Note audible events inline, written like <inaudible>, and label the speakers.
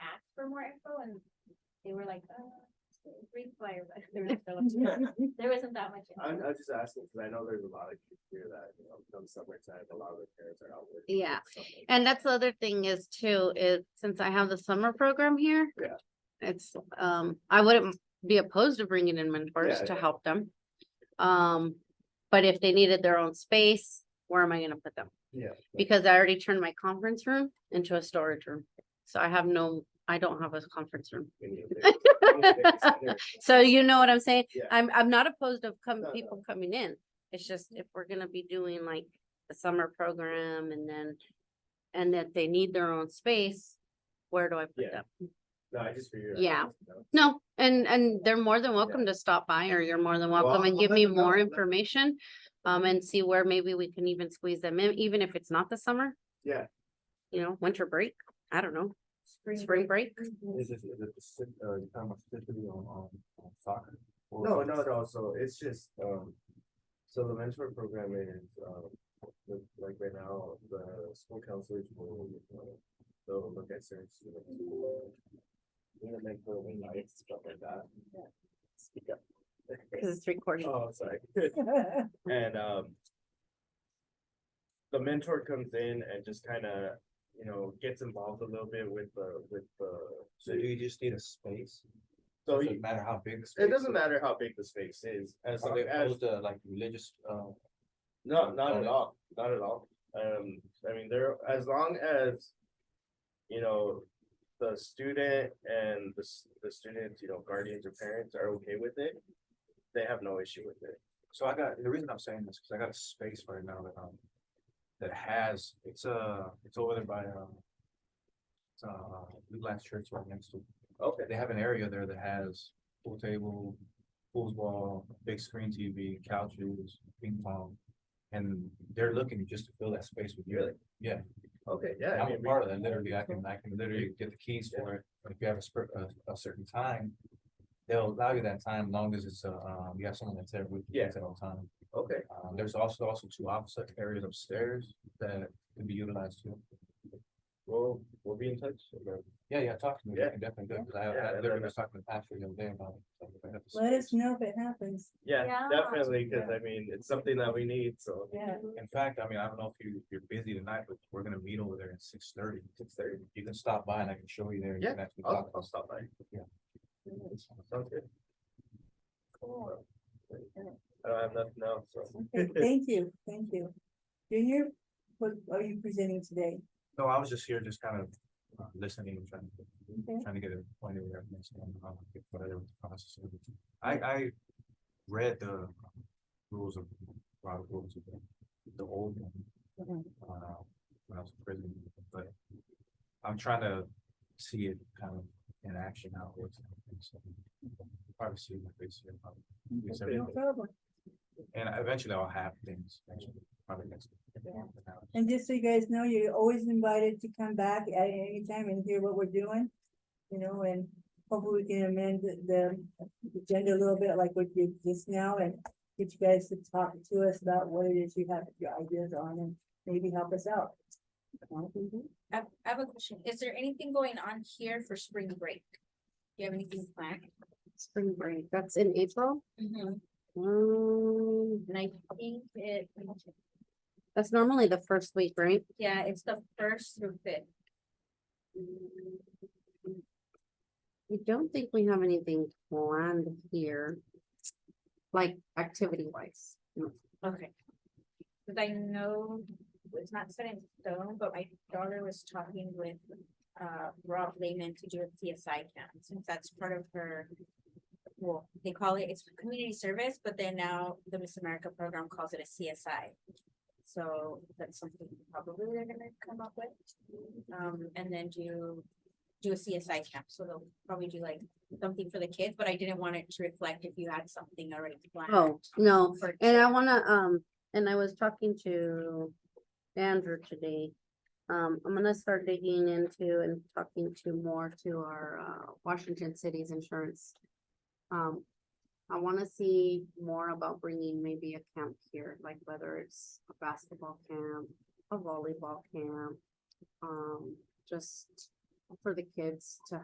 Speaker 1: more info and they were like, uh, Greek fire, but there was so much- there wasn't that <laughs> much. info.
Speaker 2: I'm, I'm just asking, because I know there's a lot of kids here that, you know, come summertime, a lot of their parents are out working.
Speaker 3: Yeah.
Speaker 2: so-
Speaker 3: And that's the other thing is too, is since I have the summer program here.
Speaker 2: Yeah.
Speaker 3: It's, um, I wouldn't be opposed to bringing in mentors
Speaker 2: Yeah,
Speaker 3: to
Speaker 2: yeah.
Speaker 3: help them. Um, but if they needed their own space, where am I gonna put them?
Speaker 2: Yeah.
Speaker 3: Because I already turned my conference room into a storage room. So I have no, I don't have a conference room.
Speaker 2: we need a big- we need a big center.
Speaker 3: <laughs> So you know what I'm saying?
Speaker 2: Yeah.
Speaker 3: I'm, I'm not opposed of come,
Speaker 2: No, no.
Speaker 3: people coming in. It's just if we're gonna be doing like the summer program and then, and that they need their own space, where do I put
Speaker 2: Yeah.
Speaker 3: them?
Speaker 2: No, I just figured. I'd
Speaker 3: Yeah.
Speaker 2: ask, you know.
Speaker 3: No, and, and they're more than welcome to stop by or you're more than welcome
Speaker 2: Well,
Speaker 3: and
Speaker 2: I'll
Speaker 3: give
Speaker 2: let
Speaker 3: me
Speaker 2: them know.
Speaker 3: more
Speaker 2: Let-
Speaker 3: information. Um, and see where maybe we can even squeeze them in, even if it's not the summer,
Speaker 2: Yeah,
Speaker 3: you know, winter break. I don't know, spring break.
Speaker 1: Mm-hmm.
Speaker 2: is it, is it, the sit- uh, you talking about specifically on, on on soccer? No, no, no, so it's just, um, so the mentor program is, um, the- like right now, the school counselors will, uh, they'll look at certain students. who are in the mentor wing, like, stuff like that. Speak up.
Speaker 3: Cause it's recording.
Speaker 2: Oh, sorry. <laughs> And, um. The mentor comes in and just kinda, you know, gets involved a little bit with the, with the.
Speaker 4: So you just need a space,
Speaker 2: So
Speaker 4: doesn't
Speaker 2: you-
Speaker 4: matter how big. the
Speaker 2: it
Speaker 4: space
Speaker 2: doesn't
Speaker 4: is.
Speaker 2: matter how big the space is, as
Speaker 4: Are
Speaker 2: long
Speaker 4: they
Speaker 2: as,
Speaker 4: opposed to like religious, uh,
Speaker 2: no, not
Speaker 4: Got
Speaker 2: at
Speaker 4: it.
Speaker 2: all, not at all. Um, I mean, there, as long as. You know, the student and the, s- the students, you know, guardians or parents are okay with it. They have no issue with it.
Speaker 4: so I got, the reason I'm saying this, cause I got a space right now that, um. That has, it's uh, it's over there by, um. It's uh, Blue Light Church right next to,
Speaker 2: Okay.
Speaker 4: they have an area there that has pool table, pool ball, big screen TV, couches, ping pong. And they're looking just to fill that space with you.
Speaker 2: Really?
Speaker 4: Yeah.
Speaker 2: Okay, yeah. I
Speaker 4: I'm a
Speaker 2: mean, we-
Speaker 4: part of that, literally, I can, I can literally get the keys for it, but if you have a spur, a, a certain time. They'll allow you that time, long as it's, uh, um, you have someone that's there with you
Speaker 2: Yeah.
Speaker 4: at all time.
Speaker 2: Okay.
Speaker 4: Um, there's also, also two opposite areas upstairs that can be utilized too.
Speaker 2: We'll, we'll be in touch. about-
Speaker 4: Yeah, yeah, talk to me,
Speaker 2: Yeah.
Speaker 4: I can definitely do, it, cause I,
Speaker 2: Yeah,
Speaker 4: I
Speaker 2: and
Speaker 4: literally
Speaker 2: then-
Speaker 4: was talking to Patrick the other day about. it, so if I have the
Speaker 5: Let us
Speaker 4: space.
Speaker 5: know if it happens.
Speaker 2: Yeah,
Speaker 1: Yeah.
Speaker 2: definitely, because I mean, it's something that we need, so.
Speaker 5: Yeah.
Speaker 4: In fact, I mean, I don't know if you, you're busy tonight, but we're gonna meet over there at six thirty. Six thirty. You can stop by and I can show you there. and you
Speaker 2: Yeah,
Speaker 4: can actually
Speaker 2: I'll,
Speaker 4: talk.
Speaker 2: I'll stop by.
Speaker 4: Yeah.
Speaker 2: Sounds good. I don't have nothing else, so.
Speaker 5: Okay, thank you, thank you. Junior, what are you presenting today?
Speaker 4: No, I was just here, just kind of uh, listening, and trying,
Speaker 5: Okay.
Speaker 4: to trying to get a point of where everything's going on, like, whatever the process is. I, I read the rules of, a lot of rules of the- the old one.
Speaker 5: Mm-hmm.
Speaker 4: Uh, when I was in prison, but I'm trying to see it kind of in action now. Probably see my face here, probably. Yes, sir.
Speaker 5: No problem.
Speaker 4: And eventually I'll have things, actually, probably next. week.
Speaker 5: And just so you guys know, you're always invited to come back at any time and hear what we're doing. You know, and hopefully we can amend the- the agenda a little bit like what you did just now and get you guys to talk to us about what it is you have your ideas on and maybe help us out.
Speaker 1: I have- I have a question. Is there anything going on here for spring break? Do you have anything planned?
Speaker 3: Spring break, that's in April.
Speaker 1: And
Speaker 3: Um,
Speaker 1: I think it,
Speaker 3: that's normally the first week, right?
Speaker 1: yeah, it's the first through fifth.
Speaker 3: I don't think we have anything planned here. Like activity wise.
Speaker 1: Okay. Cause I know it's not set in stone, but my daughter was talking with uh Rob Lehman to do a CSI camp, since that's part of her. Well, they call it, it's community service, but then now the Miss America program calls it a CSI. So that's something probably they're gonna come up with. Um, and then do, do a CSI camp, so they'll probably do like something for the kids, but I didn't want it to reflect if you had something already planned.
Speaker 3: Oh, no,
Speaker 1: for
Speaker 3: and I wanna, um, and I was talking to Andrew today. Um, I'm gonna start digging into and talking to more to our, uh, Washington City's insurance. Um, I wanna see more about bringing maybe a camp here, like whether it's a basketball camp, a volleyball camp. Um, just for the kids to